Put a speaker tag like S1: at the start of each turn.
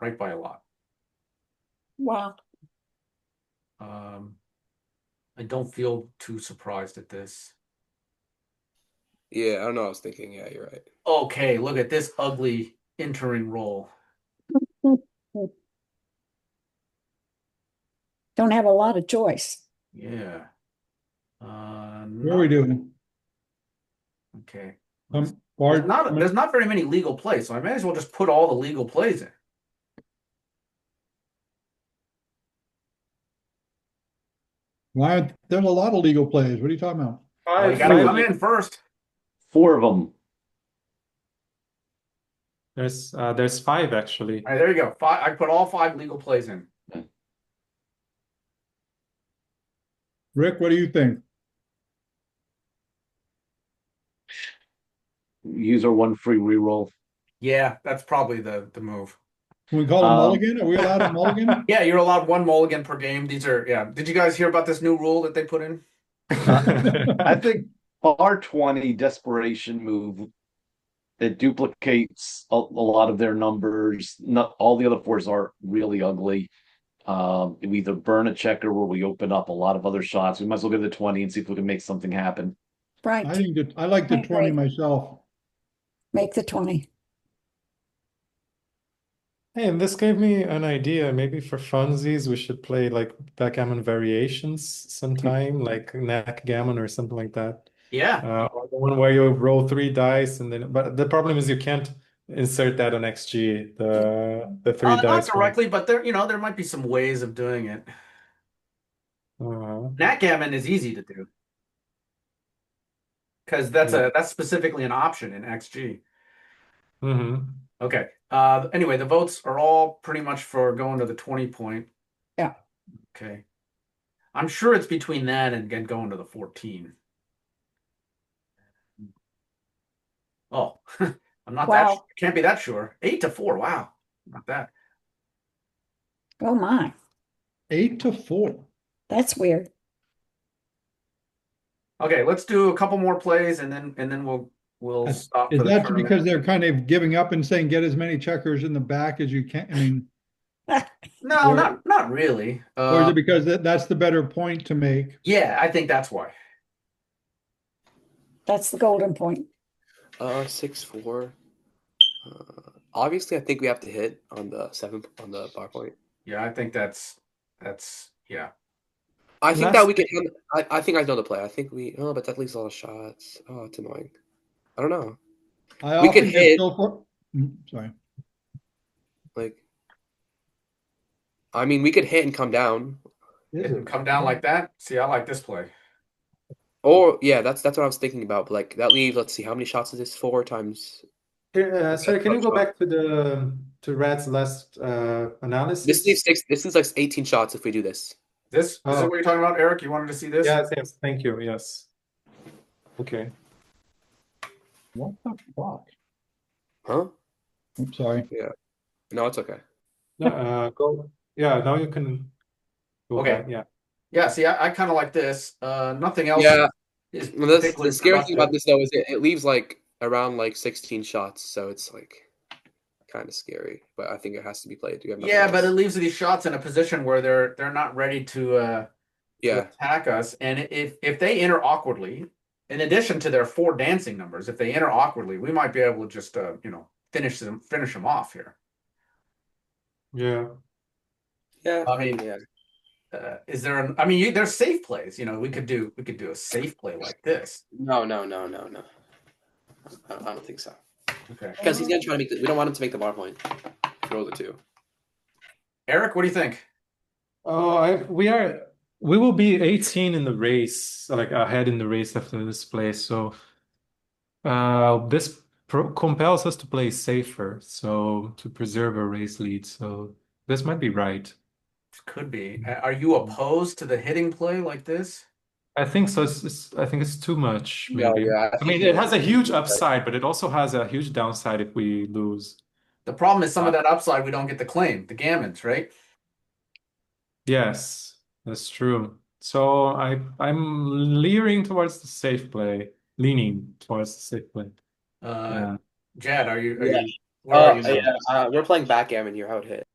S1: right by a lot.
S2: Wow.
S1: Um. I don't feel too surprised at this.
S3: Yeah, I don't know. I was thinking. Yeah, you're right.
S1: Okay, look at this ugly entering roll.
S2: Don't have a lot of choice.
S1: Yeah. Uh,
S4: What are
S1: no-
S4: we doing?
S1: Okay.
S4: Um,
S1: There's
S4: Bart,
S1: not, there's not very many legal plays, so I may as well just put all the legal plays in.
S4: why, there's a lot of legal plays. What are you talking about?
S1: Well, You gotta come in first.
S5: Four of them.
S6: There's uh, there's five actually.
S1: All right, there you go. Five, I put all five legal plays in.
S4: Rick, what do you think?
S5: Use our one free reroll.
S1: Yeah, that's probably the, the move.
S4: Can we call a
S5: Um,
S4: mulligan? Are we allowed a mulligan?
S1: Yeah, you're allowed one mulligan per game. These are, yeah. Did you guys hear about this new rule that they put in?
S5: I think our twenty desperation move that duplicates a, a lot of their numbers. Not all the other fours are really ugly. Um, we either burn a checker or we open up a lot of other shots. We might as well go to the twenty and see if we can make something happen.
S4: I
S2: Right.
S4: think that, I like
S2: I
S4: the
S2: agree.
S4: twenty myself.
S2: Make the 20.
S6: Hey, and this gave me an idea. Maybe for funsies, we should play like backgammon variations sometime, like knack gammon or something like that.
S1: Yeah.
S6: Uh, or the one where you roll three dice and then, but the problem is you can't insert that on XG, the the three
S1: Uh, not
S6: dice one.
S1: directly, but there, you know, there might be some ways of doing it.
S6: Uh-huh.
S1: Backgammon is easy to do. Because that's a that's specifically an option in XG.
S6: Mhm.
S1: Okay. Uh, anyway, the votes are all pretty much for going to the 20 point.
S2: Yeah.
S1: Okay. I'm sure it's between that and get going to the 14. Oh, I'm not that
S2: Wow.
S1: sure. Can't be that sure. Eight to four. Wow. Not that.
S2: Oh my,
S4: Eight to four.
S2: that's weird.
S1: Okay, let's do a couple more plays and then and then we'll we'll
S4: That's-
S1: stop
S4: Is
S1: for the
S4: that
S1: tournament.
S4: because they're kind of giving up and saying, get as many checkers in the back as you can? I mean,
S1: No,
S4: or-
S1: not not really.
S4: or is
S1: Uh,
S4: it because that, that's the better point to make?
S1: yeah, I think that's why.
S2: That's the golden point.
S3: Uh, six four. Uh, obviously, I think we have to hit on the seven on the bar point.
S1: Yeah, I think that's that's yeah.
S3: I think
S6: That's-
S3: that we can. hand- I, I think I know the play. I think we. Oh, but that leaves a lot of shots. Oh, it's annoying. I don't know.
S4: I
S3: We could
S4: often
S3: hit-
S4: just go for, Mm, sorry.
S3: Like, I mean, we could hit and come down.
S1: Didn't come down like that. See, I like this play.
S3: Or yeah, that's that's what I was thinking about. But like that leaves. Let's see, how many shots is this? Four times.
S6: Here, uh, sorry, can you go back to the to Rad's last uh, analysis?
S3: This leaves six. This leaves like eighteen shots if we do this.
S1: This this is
S6: Oh.
S1: what you're talking about, Eric. You wanted to see this?
S6: Yes, yes, thank you. Yes. Okay.
S4: What the fuck?
S3: Huh?
S4: I'm sorry.
S3: No, it's okay.
S6: No, uh, go. Yeah, now you can go
S1: Okay.
S6: back, Yeah.
S1: Yeah, see, I, I kind of like this. Uh, nothing else.
S3: Yeah.
S1: is
S3: Well, that's-
S1: particularly
S3: the scary thing about
S1: productive.
S3: this though is it, it leaves like around like sixteen shots, so it's like kind of scary. But I think it has to be played. You have nothing
S1: Yeah, but it
S3: else.
S1: leaves these shots in a position where they're they're not ready to uh to
S3: yeah,
S1: attack us. And if if they enter awkwardly, in addition to their four dancing numbers, if they enter awkwardly, we might be able to just uh you know finish them finish them off here.
S6: Yeah.
S3: yeah.
S1: I mean,
S3: yeah.
S1: Uh, is there an? I mean, you, there's safe plays. You know, we could do we could do a safe play like this.
S3: No, no, no, no, no. I don't, I don't think so.
S1: Okay,
S3: Because he's gonna try to make. The, we don't want him to make the bar point. Roll the two.
S1: Eric, what do you think?
S6: Oh, I we are we will be 18 in the race, like ahead in the race after this play. So uh this pro compels us to play safer, so to preserve our race lead. So this might be right.
S1: Could be. A- Are you opposed to the hitting play like this?
S6: I think so. It's, it's I think it's too much,
S3: Yeah,
S6: maybe.
S3: yeah, I
S6: I
S3: think
S6: mean,
S3: you're
S6: it has a
S3: right.
S6: huge upside, but it also has a huge downside if we lose.
S1: The problem is some of that upside we don't get to claim, the gammons, right?
S6: Yes, that's true. So I I'm leering towards the safe play, leaning towards the safe play.
S1: Uh,
S6: Yeah.
S1: Jad, are you? Are
S3: Yeah. Uh,
S1: you where are you now?
S3: yeah, uh, we're playing backgammon here. How it hit.